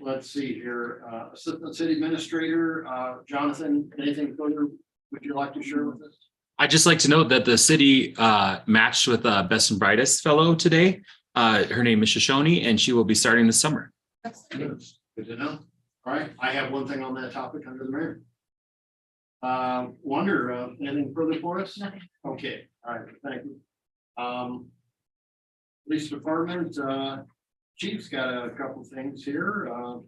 let's see here, uh, Assistant City Administrator, uh, Jonathan, anything further would you like to share with us? I'd just like to note that the city uh, matched with a Best and Brightest Fellow today. Uh, Her name is Shoshone, and she will be starting this summer. Good to know. All right, I have one thing on that topic under the mayor. Uh, Wonder, uh, anything further for us? Nothing. Okay, all right, thank you. Um. Police Department, uh, Chief's got a couple things here. Uh,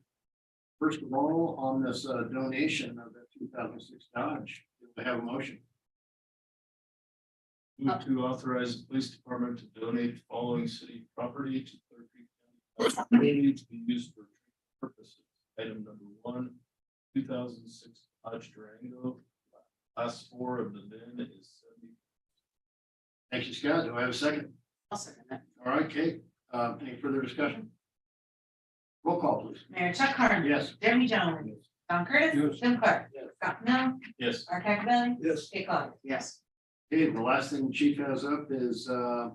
First of all, on this uh, donation of the two thousand six Dodge, do we have a motion? Move to authorize the police department to donate the following city property to Clear Creek County community to be used for purposes. Item number one, two thousand six Dodge Durango. Last four of the VIN is seventy. Thank you, Scott. Do I have a second? I'll second that. All right, Kate, uh, any further discussion? Roll call, please. Mayor Chuck Carmen. Yes. Jeremy Jones. Don Curtis. Yes. Jim Clark. Yes. Scott Pennell. Yes. Art Cacavelli. Yes. Dick Clark. Yes. Okay, the last thing chief has up is, uh,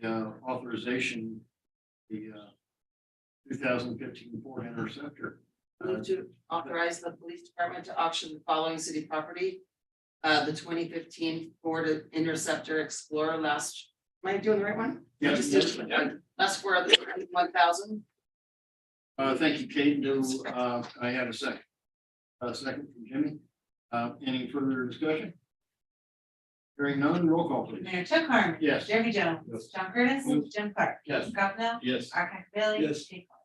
the, uh, authorization, the, uh, 2015 Ford Interceptor. Uh, Move to authorize the police department to auction the following city property. Uh, the twenty fifteen Ford Interceptor Explorer last, am I doing the right one? Yeah, Just- yes, Last for the one thousand, Uh, thank you, Kate. Do, uh, I have a second? A second from Jimmy. Uh, any further discussion? Hearing none, roll call please. Mayor Chuck Carmen. Yes. Jeremy Jones. Yes. John Curtis. Yes. Jim Clark. Yes. Scott Pennell. Yes. Art Cacavelli. Yes. Dick Clark.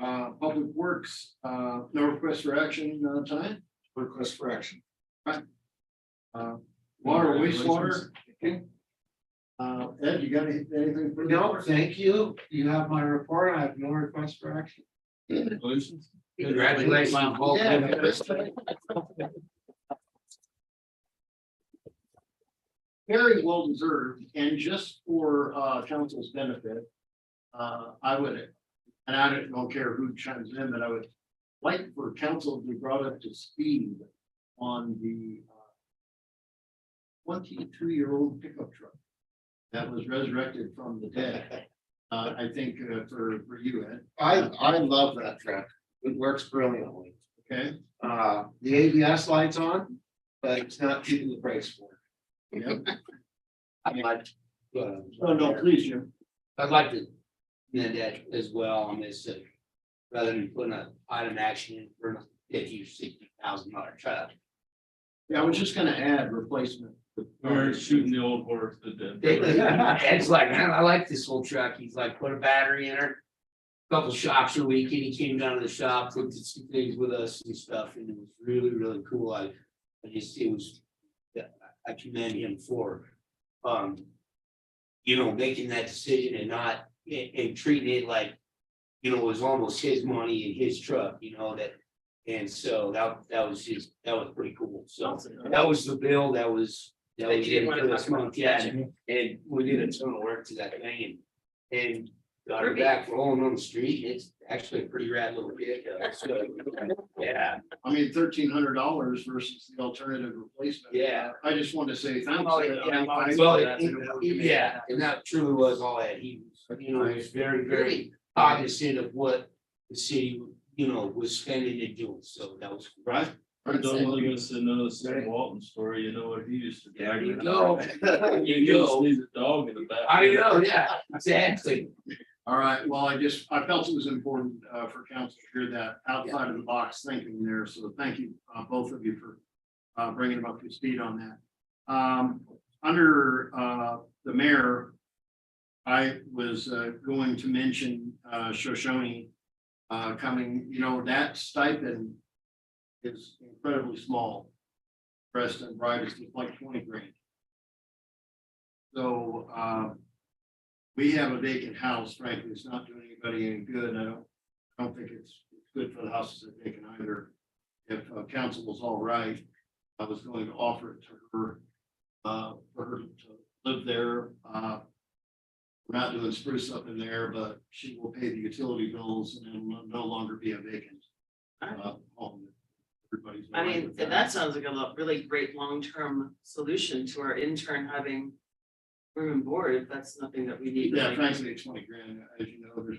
Uh, Public Works, uh, no request for action, uh, tonight. Request for action. Uh, Water wastewater. Uh, Ed, you got any- anything? further? No, thank you. You have my report. I have no request for action. Congratulations. Congratulations. Very well deserved, and just for uh council's benefit. Uh, I would, and I don't don't care who chimes in, but I would like for council to be brought up to speed on the. Twenty-two year old pickup truck that was resurrected from the dead. Uh, I think uh, for for you, Ed, I, I love that truck. It works brilliantly. okay? Uh, the ABS light's on, but it's not keeping the brakes for. Yep. I'd like, uh, No, Oh, no, please, Jim. I'd like to amend that as well on this, uh, rather than putting an item action in for a fifty or sixty thousand dollar truck. Yeah, I was just gonna add replacement. We're shooting the old horse to death. Ed's like, man, I like this whole truck. He's like, put a battery in her. Couple shops a week and he came down to the shop, looked at some things with us and stuff, and it was really, really cool. I, I just, it was. yeah, I commend him for, um. You know, making that decision and not, and, and treating it like. You know, it was almost his money and his truck, you know, that, and so that, that was just, that was pretty cool, so. That was the bill, that was. That That was you didn't it wanna for this talk about. month, yeah, and- and we did a ton of work to that thing and, and got her Ruby. back rolling on the street, it's actually a pretty rad little pickup, so. Yeah, I mean, thirteen hundred dollars versus the alternative replacement. Yeah. I just wanted to say thanks. Oh, yeah, I'm I- well, it- it- yeah, and that truly was all that, he, was, you know, he was very, very cognizant of what the city, you know, was spending and doing, so that was. Right? Or don't look us another Sam Walton story, you know what he used to. There drag you around. go, He you used to go, sneeze a dog in the back. I know, yeah, exactly, All right, well, I just, I felt it was important uh for council to hear that outside of the box thinking there, so thank you, uh both of you for. Uh bringing them up to speed on that. Um, under uh the mayor. I was uh going to mention uh Shoshone. Uh coming, you know, that stipend is incredibly small. Breast and bright is just like twenty grand. So uh we have a vacant house, frankly, it's not doing anybody any good, I don't, I don't think it's, it's good for the houses that vacant either. If uh, council was all right, I was going to offer it to her, uh, for her to live there, uh. We're not doing spruce up in there, but she will pay the utility bills and it will no longer be a vacant, uh, home. Everybody's. I aligned mean, with and that sounds like a lo- really great long-term solution to our intern having. Room and board, if that's nothing that we need. to, Yeah, like, frankly, it's twenty grand, as you know, there's